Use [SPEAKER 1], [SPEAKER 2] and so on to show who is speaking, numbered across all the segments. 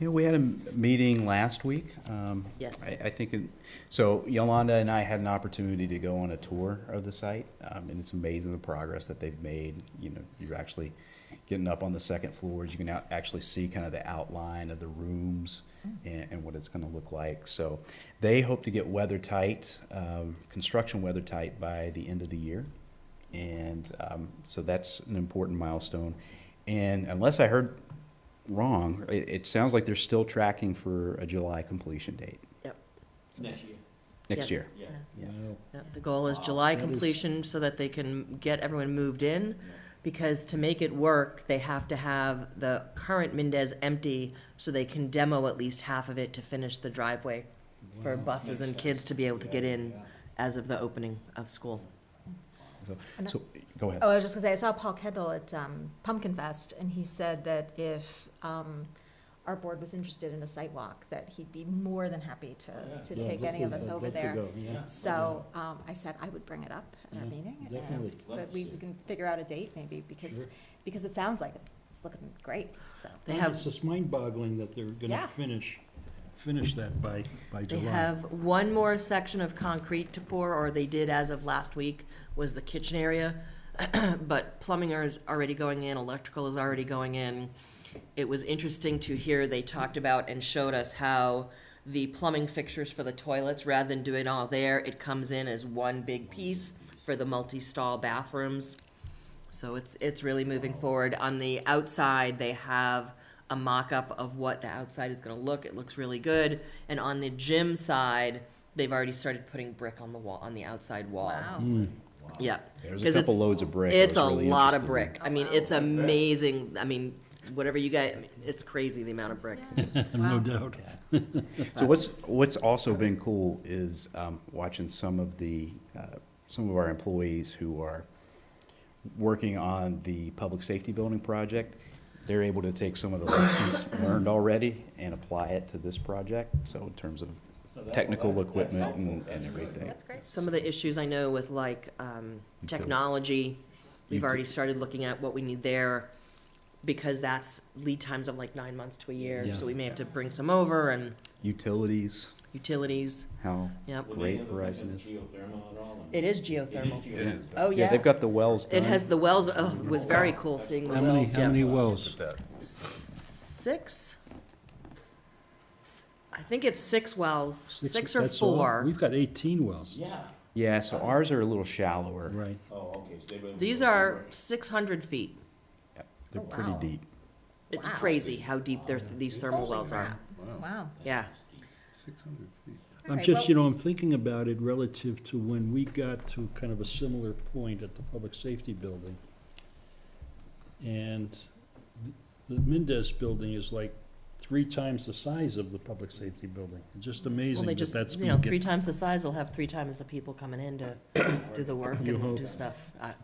[SPEAKER 1] You know, we had a m- meeting last week. um,
[SPEAKER 2] Yes.
[SPEAKER 1] I, I think, it- so Yolanda and I had an opportunity to go on a tour of the site, um, and it's amazing the progress that they've made. You know, you're actually getting up on the second floors, you can out- actually see kind of the outline of the rooms and, and what it's gonna look like. So they hope to get weather tight, um, construction weather tight by the end of the year. And um, so that's an important milestone. And unless I heard wrong, it, it sounds like they're still tracking for a July completion date
[SPEAKER 3] Next year.
[SPEAKER 1] next
[SPEAKER 2] Yes.
[SPEAKER 1] year.
[SPEAKER 3] Yeah.
[SPEAKER 1] Yeah.
[SPEAKER 4] Wow.
[SPEAKER 2] Yeah, The goal is
[SPEAKER 3] Wow.
[SPEAKER 2] July
[SPEAKER 4] That is-
[SPEAKER 2] completion so that they can get everyone moved in, because to make it work, they have to have the current Mendez empty so they can demo at least half of it to finish the driveway for buses and
[SPEAKER 3] Makes
[SPEAKER 2] kids to be able to
[SPEAKER 3] Yeah,
[SPEAKER 2] get in
[SPEAKER 3] yeah.
[SPEAKER 2] as of the opening of school.
[SPEAKER 5] And I-
[SPEAKER 1] So, go ahead.
[SPEAKER 5] Oh, I was just gonna say, I saw Paul Kendall at um, Pumpkin Fest, and he said that if um, our board was interested in a site walk, that he'd be more than happy
[SPEAKER 3] Yeah.
[SPEAKER 5] to, to
[SPEAKER 4] Yeah,
[SPEAKER 5] take
[SPEAKER 4] I'd
[SPEAKER 5] any
[SPEAKER 4] love
[SPEAKER 5] of
[SPEAKER 4] to-
[SPEAKER 5] us
[SPEAKER 4] I'd
[SPEAKER 5] over
[SPEAKER 4] love to
[SPEAKER 5] there.
[SPEAKER 4] go, yeah.
[SPEAKER 5] So um, I said I would bring it up at our
[SPEAKER 4] Yeah,
[SPEAKER 5] meeting. and, um,
[SPEAKER 4] definitely.
[SPEAKER 5] But we we can figure out a date maybe, because,
[SPEAKER 4] Sure. Hmm.
[SPEAKER 5] because it sounds like it's it's looking great, so.
[SPEAKER 2] They have,
[SPEAKER 4] It's just mind-boggling that they're
[SPEAKER 5] Yeah.
[SPEAKER 4] gonna finish, finish that by, by
[SPEAKER 2] they
[SPEAKER 4] July.
[SPEAKER 2] have one more section of concrete to pour, or they did as of last week, was the kitchen area. But plumbing is already going in, electrical is already going in. It was interesting to hear, they talked about and showed us how the plumbing fixtures for the toilets, rather than doing all there, it comes in as one big piece for the multi-stall bathrooms. So it's, it's really moving forward. On the outside, they have a mock-up of what the outside is gonna look. It looks really good. And on the gym side, they've already started putting brick on the wall, on the outside wall.
[SPEAKER 5] Wow.
[SPEAKER 2] Yep.
[SPEAKER 1] There's
[SPEAKER 2] 'Cause
[SPEAKER 1] a couple
[SPEAKER 2] it's-
[SPEAKER 1] loads of brick. I
[SPEAKER 2] It's a
[SPEAKER 1] was really
[SPEAKER 2] lot of
[SPEAKER 1] interested in.
[SPEAKER 2] brick. I mean, it's amazing. I mean, whatever you guys, I mean, it's crazy the amount of brick.
[SPEAKER 4] No doubt.
[SPEAKER 1] So what's, what's also been cool is um, watching some of the, uh, some of our employees who are working on the public safety building project. They're able to take some of the lessons learned already and apply it to this project. So in terms of technical equipment and and everything.
[SPEAKER 5] great.
[SPEAKER 2] Some of the issues I know with like, um, technology, we've
[SPEAKER 1] Util-
[SPEAKER 2] already started looking at what we need there because that's lead times of like nine months to a year,
[SPEAKER 4] Yeah.
[SPEAKER 2] so we may have to bring some over and
[SPEAKER 1] Utilities,
[SPEAKER 2] utilities,
[SPEAKER 1] how
[SPEAKER 2] yep.
[SPEAKER 3] Would any
[SPEAKER 1] Great
[SPEAKER 3] of the things
[SPEAKER 1] Verizon.
[SPEAKER 3] in Geothermal at all?
[SPEAKER 2] It is
[SPEAKER 3] It is
[SPEAKER 2] geothermal.
[SPEAKER 3] geothermal.
[SPEAKER 2] Oh,
[SPEAKER 1] Yeah,
[SPEAKER 2] yeah.
[SPEAKER 1] they've got the wells done.
[SPEAKER 2] It has the wells, oh, it was very cool seeing the
[SPEAKER 4] How many,
[SPEAKER 2] wells,
[SPEAKER 4] how
[SPEAKER 2] yeah.
[SPEAKER 4] many wells?
[SPEAKER 2] Six? S- I think it's six wells, six or
[SPEAKER 4] that's all?
[SPEAKER 2] four.
[SPEAKER 4] We've got eighteen wells,
[SPEAKER 3] Yeah.
[SPEAKER 1] Yeah, so ours are a little shallower.
[SPEAKER 4] right.
[SPEAKER 3] Oh, okay, so they would.
[SPEAKER 2] These are six hundred feet.
[SPEAKER 1] Yep, They're
[SPEAKER 5] Oh,
[SPEAKER 1] pretty
[SPEAKER 5] wow.
[SPEAKER 1] deep.
[SPEAKER 2] It's
[SPEAKER 5] Wow.
[SPEAKER 2] crazy how deep their, these thermal wells are.
[SPEAKER 5] Wow.
[SPEAKER 2] Yeah.
[SPEAKER 4] I'm
[SPEAKER 5] Alright,
[SPEAKER 4] just,
[SPEAKER 5] well-
[SPEAKER 4] you know, I'm thinking about it relative to when we got to kind of a similar point at the public safety building. And th- the Mendez building is like three times the size of the public safety building. It's just
[SPEAKER 2] Well,
[SPEAKER 4] amazing
[SPEAKER 2] they
[SPEAKER 4] that
[SPEAKER 2] just,
[SPEAKER 4] that's
[SPEAKER 2] you know,
[SPEAKER 4] gonna
[SPEAKER 2] three
[SPEAKER 4] get.
[SPEAKER 2] times the size, they'll have three times the people coming in to do the work
[SPEAKER 4] You
[SPEAKER 2] and
[SPEAKER 4] hope.
[SPEAKER 2] do stuff. Uh, I-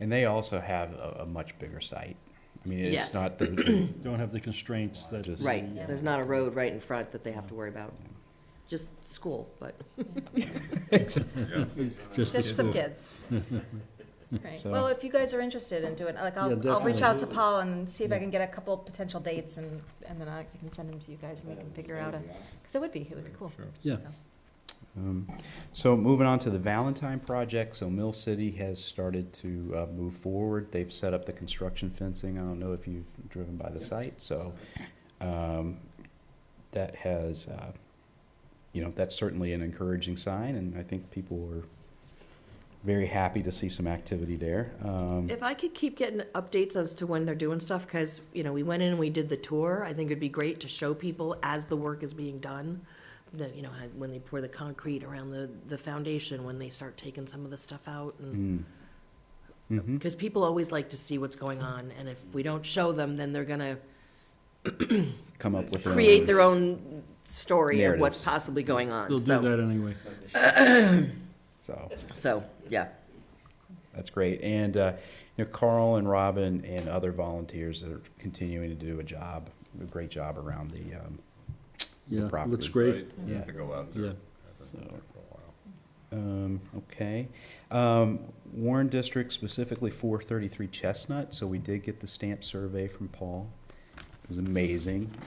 [SPEAKER 1] And they also have a, a much bigger site. I mean,
[SPEAKER 2] Yes.
[SPEAKER 1] it's not the,
[SPEAKER 4] Don't have the constraints that. uh,
[SPEAKER 1] Just-
[SPEAKER 2] Right,
[SPEAKER 5] Yeah.
[SPEAKER 2] there's not a road right in front that they have to worry about. Just school, but
[SPEAKER 4] Just the
[SPEAKER 5] Just some
[SPEAKER 4] school.
[SPEAKER 5] kids. Right,
[SPEAKER 1] So-
[SPEAKER 5] well, if you guys are interested in doing, like,
[SPEAKER 4] Yeah,
[SPEAKER 5] I'll, I'll reach out to
[SPEAKER 4] definitely.
[SPEAKER 5] Paul and see if I
[SPEAKER 4] Yeah.
[SPEAKER 5] can get a couple potential dates and, and then I I can send them to you guys and we can figure out a, because it would be, it would be cool.
[SPEAKER 4] Yeah.
[SPEAKER 5] So,
[SPEAKER 1] um, so moving on to the Valentine project, so Mill City has started to, uh, move forward. They've set up the construction fencing. I don't know if you've driven by the
[SPEAKER 3] Yeah.
[SPEAKER 1] site, so, um, that has, uh, you know, that's certainly an encouraging sign, and I think people are very happy to see some activity there. Um,
[SPEAKER 2] if I could keep getting updates as to when they're doing stuff, because, you know, we went in and we did the tour. I think it'd be great to show people as the work is being done, the, you know, how- when they pour the concrete around the, the foundation, when they start taking some of the stuff out and
[SPEAKER 1] mm.
[SPEAKER 4] Mm-hmm.
[SPEAKER 1] Mhm.
[SPEAKER 2] Because people always like to see what's going on, and if we don't show them, then they're gonna
[SPEAKER 1] Come up with their
[SPEAKER 2] create
[SPEAKER 1] own-
[SPEAKER 2] their own story of what's
[SPEAKER 1] Um, Narratives.
[SPEAKER 2] possibly going on,
[SPEAKER 4] They'll do
[SPEAKER 2] so,
[SPEAKER 4] that anyway.
[SPEAKER 1] So.
[SPEAKER 2] so, yeah.
[SPEAKER 1] That's great. And, uh, you know, Carl and Robin and other volunteers are continuing to do a job, a great job around the, um,
[SPEAKER 4] Yeah, it looks
[SPEAKER 1] property.
[SPEAKER 4] great,
[SPEAKER 1] yeah.
[SPEAKER 4] yeah.
[SPEAKER 1] So, um, okay. Um, Warren District specifically four thirty-three Chestnut, so we did get the stamp survey from Paul. It was amazing.